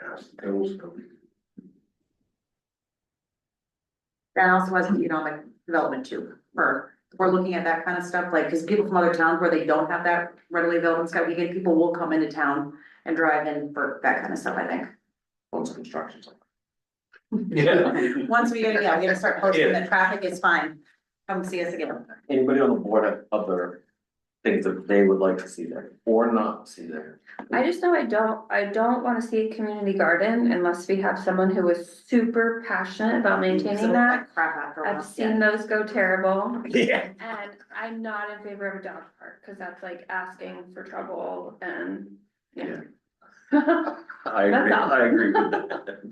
Ask the council. That also has economic development too, for, if we're looking at that kind of stuff, like, cause people from other towns where they don't have that readily available in Scout Weekend, people will come into town and drive in for that kind of stuff, I think. Once construction's. over. Yeah. Once we, yeah, we're gonna start posting that traffic is fine, come see us again. Anybody on the board have other things that they would like to see there or not see there? I just know I don't, I don't wanna see a community garden unless we have someone who is super passionate about maintaining that. Crap after a while. I've seen those go terrible, Yeah. and I'm not in favor of a dog park, cause that's like asking for trouble and, you know. I That's agree, all. I agree with that.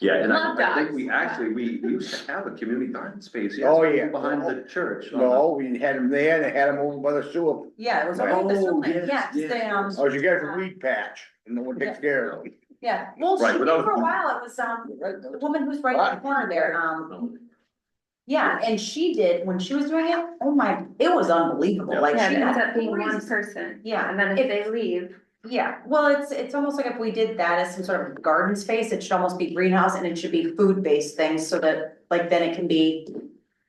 Yeah, and I Love I think dogs, we but- actually, we used to have a community garden space, yes. Oh, yeah. Behind the church. on the- No, we had them there, they had them over by the sewer, Yeah, it was Right. all this Oh, one, yeah, yes, yes, they, um, yes. oh, you got a weed patch, and no one takes care of it. yeah, well, Right, she did without- for a while, it was, um, the woman who's right in the corner there, um, No. yeah, and she did, when she was doing it, oh my, it was unbelievable, like, Yeah, she it ends had up being one crazy- person, Yeah, and then if they leave, Yeah, well, it's, it's almost like if we did that as some sort of garden space, it should almost be greenhouse and it should be food-based things so that, like, then it can be.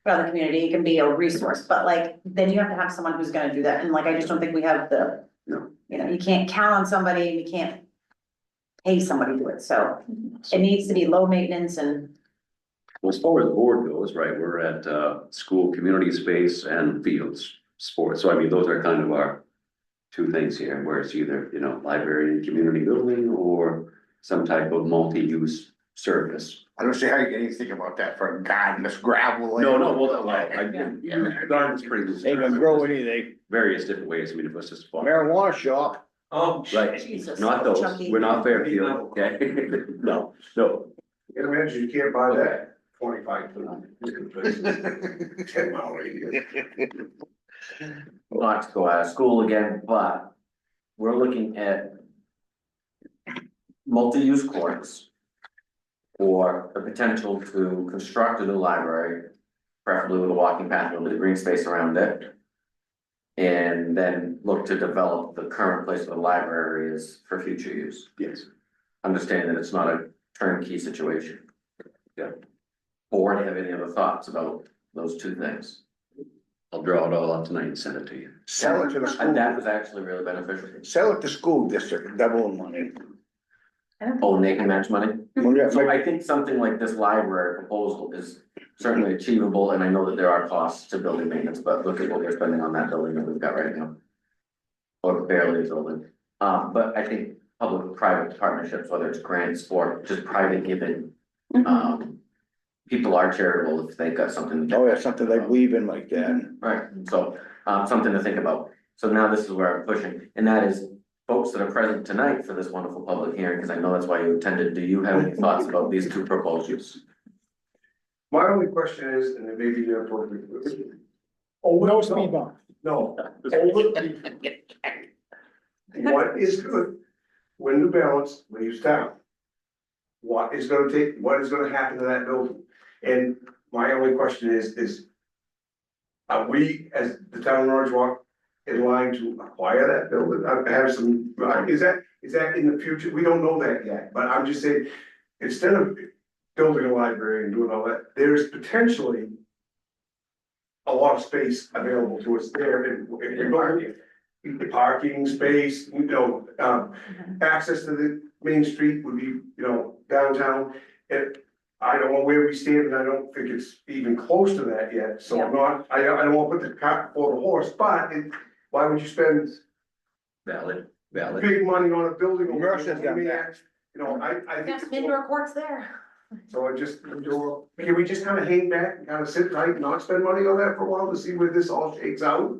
For the community, it can be a resource, but like, then you have to have someone who's gonna do that, and like, I just don't think we have the. No. You know, you can't count on somebody, and you can't. Pay somebody to do it, so it needs to be low maintenance and, Well, As far as the board goes, right, we're at uh school, community space and fields, sports, so I mean, those are kind of our. Two things here, where it's either, you know, library and community building or some type of multi-use service. I don't see how you can even think about that for a garden, this gravel. No, no, well, well, I, yeah, garden's pretty loose. They can grow anything, Various different ways, I mean, if it's just. farm. marijuana shop, Oh. Right, Jesus, not those, Chucky. we're not Fairfield, okay? No, no, Get a minute, you can't buy that twenty-five foot. Ten mile radius. not to go out of school again, but we're looking at multi-use courts or the potential to construct a new library, preferably with a walking path and with a green space around it. And then look to develop the current place where the library is for future use. yes, Understand that it's not a turnkey situation. Yeah. Or do you have any other thoughts about those two things? I'll draw it all up tonight and send it to you. sell it to the And that was school, actually really beneficial. sell it to school district, double the money. I don't think Oh, and they can match money? Well, yeah, So like, I think something like this library proposal is certainly achievable, and I know that there are costs to building maintenance, but look at what we're spending on that building that we've got right now. Or barely a building, um, but I think public-private partnerships, whether it's grants or just private giving, um. People are charitable if they've got something, Oh, yeah, something like weaving like that. right, so, um, something to think about. So now this is where I'm pushing, and that is folks that are present tonight for this wonderful public hearing, because I know that's why you attended, do you have any thoughts about these two proposals? My only question is, and it may be inappropriate. No speed bump. No. What is good, when the balance, when you stop? What is gonna take, what is gonna happen to that building? And my only question is, is. Are we, as the town of Orange Walk, in line to acquire that building? I have some, is that, is that in the future? We don't know that yet, but I'm just saying, instead of building a library and doing all that, there's potentially. A lot of space available to us there and if we buy parking space, you know, um, access to the main street would be, you know, downtown. And I don't know where we stand and I don't think it's even close to that yet, so I'm not, I I don't wanna put the cart before the horse, but it, why would you spend Valid, valid. big money on a building? over there? Mercer's got that. You know, I I think. there's some indoor courts there. So I just, can we just kind of hang back and kind of sit tight and not spend money on that for a while to see where this all shakes out?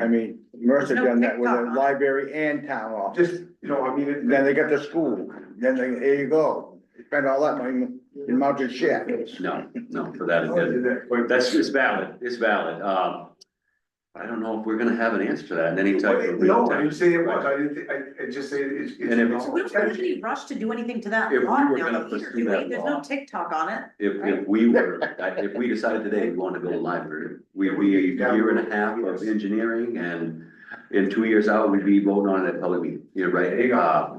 I mean, Mercer No done that with TikTok on a it. library and town office. Just, you know, I mean, it- Then they got the school, then they, here you go, spend all that money in mountain shit. No, no, for I that, did that- that quick. that's, it's valid, it's valid, um. I don't know if we're gonna have an answer to that in any type of real No, I time. didn't say it was, I didn't, thi- I, I just say it's. it's- And if it's- We don't have any rush to do anything to that If we lawn were now, gonna either, pursue do that we? There's no law. TikTok on it. If, if we were, if we decided today we want to build a library, we'd be a year and a half of engineering and in two years out, we'd be voting on it at public meeting, you know, right? Uh,